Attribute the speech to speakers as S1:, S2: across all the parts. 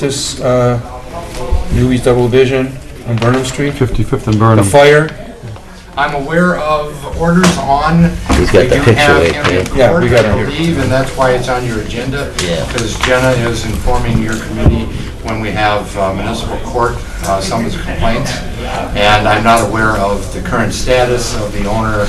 S1: This, uh, Newby's Double Vision on Burnham Street,
S2: 55th and
S1: the
S2: Burnham.
S1: fire,
S3: I'm aware of orders on.
S4: We've got
S3: They
S4: the
S3: do
S4: picture
S3: have
S4: right
S3: him
S4: there.
S3: in court,
S1: Yeah, we got it
S3: I
S1: here.
S3: believe, and that's why it's on your agenda.
S4: Yeah.
S3: Because Jenna is informing your committee when we have uh, municipal court uh, summons complaints. And I'm not aware of the current status of the owner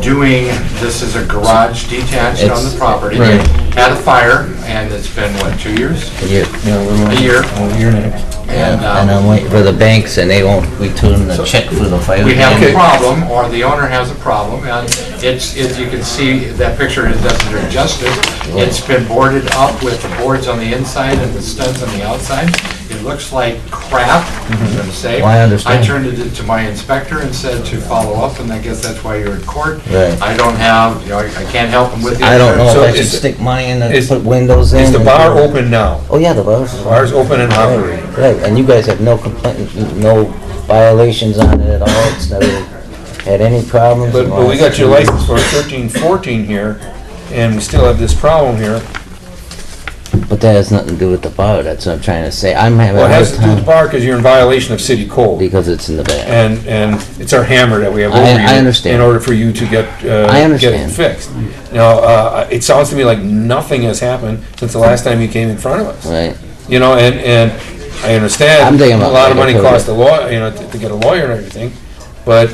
S3: doing, this is a garage detached on the
S4: It's-
S3: property.
S4: Right.
S3: Had a fire, and it's been, what, two years?
S4: Yeah,
S1: yeah, we're.
S3: A year.
S1: A year and a half.
S3: And, um,
S4: and I'm waiting for the banks, and they won't return the check for the fire.
S3: we have a
S4: damage.
S3: problem, or the owner has a problem, and it's, if you can see, that picture is doesn't do it justice. It's been boarded up with the boards on the inside and the studs on the outside. It looks like crap, I'm gonna say.
S4: Mm-hmm. Well, I understand.
S3: I turned it to my inspector and said to follow up, and I guess that's why you're in court.
S4: Right.
S3: I don't have, you know, I can't help him with the...
S4: I don't know if
S1: So
S4: I should
S1: is-
S4: stick money in and
S1: is-
S4: put windows in.
S1: Is the
S4: and-
S1: bar open now?
S4: Oh, yeah, the bar's.
S1: Bar's open and operating.
S4: Right, and you guys have no complaint, no violations on it at all, it's never had any problems.
S1: But, but we got your license for thirteen, fourteen here, and we still have this problem here.
S4: But that has nothing to do with the bar, that's what I'm trying to say, I'm having
S1: Well,
S4: a
S1: it
S4: hard
S1: has to do with the
S4: time
S1: bar, because you're in violation of city code.
S4: because it's in the back.
S1: And, and it's our hammer that we have
S4: I-
S1: over you.
S4: I understand.
S1: In order for you to get, uh, get
S4: I
S1: it
S4: understand.
S1: fixed. Now, uh, it sounds to me like nothing has happened since the last time you came in front of us.
S4: Right,
S1: You know, and, and I understand
S4: I'm
S1: a
S4: thinking about
S1: lot of money
S4: later,
S1: costs a
S4: totally.
S1: law, you know, to to get a lawyer and everything, but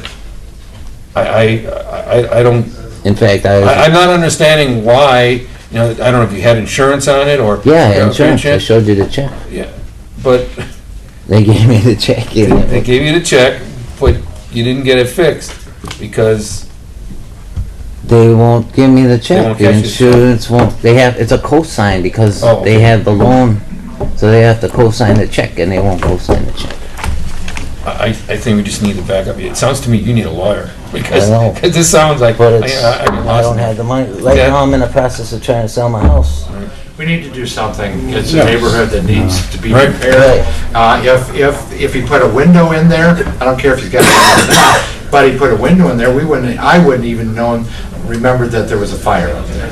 S1: I, I, I, I don't,
S4: in fact,
S1: I,
S4: I,
S1: I'm not understanding why, you know, I don't know if you had insurance on it or. you
S4: yeah,
S1: know,
S4: insurance, I
S1: pension,
S4: showed you the check,
S1: But
S4: they gave me the check, you know.
S1: they gave you the check, but you didn't get it fixed because,
S4: They won't give me the check.
S1: won't
S4: The
S1: catch you.
S4: insurance won't, they have, it's a cosign because
S1: Oh, okay.
S4: they have the loan, so they have to cosign the check and they won't cosign the check.
S1: I, I I think we just need to back up. It sounds to me you need a lawyer because,
S4: I know.
S1: because this sounds like, I,
S4: But it's,
S1: I, I get
S4: I don't
S1: lost.
S4: have the money. Right
S1: Yeah.
S4: now, I'm in the process of trying to sell my house.
S3: We need to do something. It's a neighborhood that needs to be
S1: Right.
S3: repaired. Uh, If, if, if he put a window in there, I don't care if he's got it or not, but he put a window in there, we wouldn't, I wouldn't even known, remembered that there was a fire up there.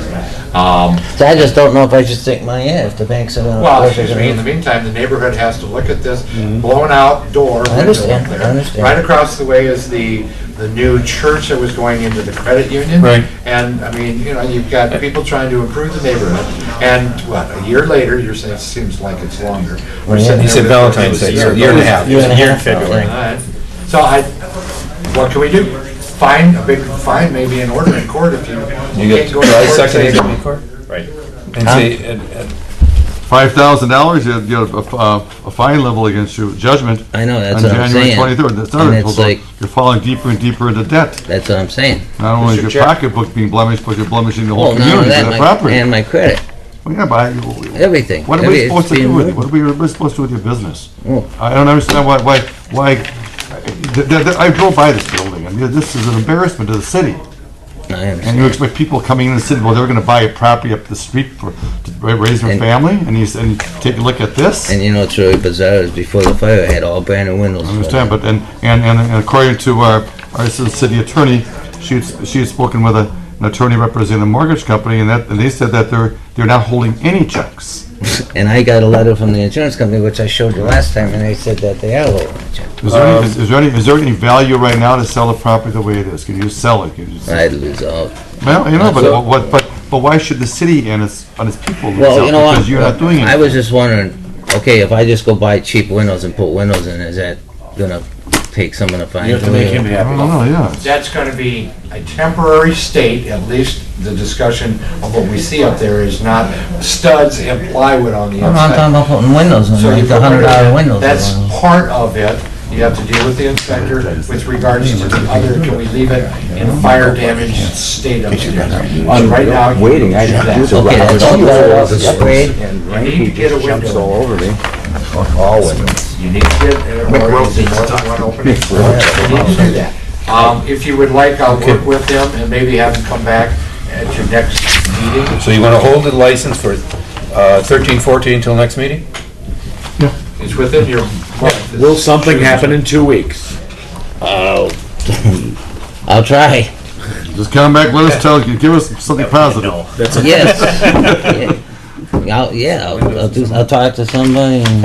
S3: Um,
S4: So I just don't know if I should stick my, yeah, if the banks are gonna.
S3: Well,
S4: if they're
S3: excuse me, in the
S4: gonna-
S3: meantime, the neighborhood has to look at this blown out door. window up
S4: understand,
S3: there.
S4: Mm-hmm. I understand.
S3: Right across the way is the, the new church that was going into the credit union.
S1: Right.
S3: And, I mean, you know, you've got people trying to improve the neighborhood, and what, a year later, you're saying, it seems like it's longer. We're
S4: Well, yeah.
S3: sitting
S1: He
S3: there
S1: said
S3: with-
S1: Valentine's Day, year year and a half.
S4: Year and a
S5: Here in
S4: half now,
S5: February.
S3: All right. So I, what can we do? Fine, a big fine, maybe an order in court if you.
S1: You get
S3: can't go to
S1: July
S3: court,
S1: second,
S3: say-
S1: you go to court?
S5: Right.
S1: And say, and, and
S2: $5,000, you'd get a- a a fine level against you, judgment.
S4: I know, that's
S2: On
S4: what I'm
S2: January
S4: saying.
S2: 23rd, that's
S4: And
S2: another,
S4: it's
S2: problem.
S4: like-
S2: you're falling deeper and deeper into debt.
S4: That's what I'm saying.
S2: Not only
S1: Mr.
S2: is your
S1: Chair.
S2: pocketbook being blemished, but you're blemishing the whole
S4: Well, none of
S2: community,
S4: that,
S2: the
S4: my-
S2: property.
S4: and my credit,
S2: Well, yeah, but I-
S4: everything.
S2: What are
S4: Every-
S2: we
S4: it's
S2: supposed to
S4: being
S2: do with it?
S4: ruined.
S2: What are we, what are we supposed to do with your business?
S4: Oh.
S2: I don't understand why, why, why, th- th- th- I drove by this building, I mean, this is an embarrassment to the city.
S4: I
S2: And
S4: understand.
S2: you expect people coming in and saying, well, they're gonna buy a property up the street for, to ra- raise their
S4: And-
S2: family, and you, s- and you take a look at this?
S4: And you know, it's really bizarre, is before the fire, I had all brand new windows.
S2: I understand, but, and, and, and according to our, our ci- city attorney, she had, s- she had spoken with a- an attorney representing a mortgage company, and that, and they said that they're, they're not holding any checks.
S4: And I got a letter from the insurance company, which I showed you last time, and they said that they are lowering the check.
S2: Is there,
S1: Um,
S2: any, is, is there any is there any value right now to sell the property the way it is? Can you sell it? Can you
S4: I'd lose all.
S2: Well, you know, but
S1: So-
S2: what, but but why should the city and its and its people
S4: Well,
S2: sell?
S4: you know what?
S2: because you're not doing it.
S4: I was just wondering, okay, if I just go buy cheap windows and put windows in, is that gonna take some of the fines?
S5: You have to make him
S2: I
S5: happy.
S2: don't know. Yeah.
S3: that's going to be a temporary state, at least the discussion of what we see up there is not studs and plywood on the
S4: I'm not
S3: outside.
S4: talking about putting windows in,
S3: So you
S4: like the
S3: put
S4: hundred dollar windows.
S3: That's
S4: in.
S3: part of it. You have to deal with the inspector with regards to the other, can we leave it in fire damage state of it?
S6: I'm
S3: Right now. you
S6: waiting, I
S3: do
S6: have
S3: that.
S6: to do
S4: Okay,
S6: I
S4: that's
S6: was
S4: all
S6: here
S4: better
S6: all
S4: off the
S6: this-
S4: spray.
S6: And
S3: need to
S6: Randy
S3: get a
S6: just jumps
S3: window.
S6: all over me. All windows.
S3: You need to get, or is it more than one opening? You need to do that. Um, If you would like, I'll work with them and maybe have them come back at your next meeting.
S1: so you wanna hold the license for, uh, thirteen, fourteen until next meeting?
S3: It's within your.
S5: Will something happen in two weeks?
S4: I'll try,
S2: Just come back. Let us tell you. Give us something positive.
S5: No. That's a
S4: yes. Yeah. I'll, yeah, I'll, I'll do, I'll talk to somebody and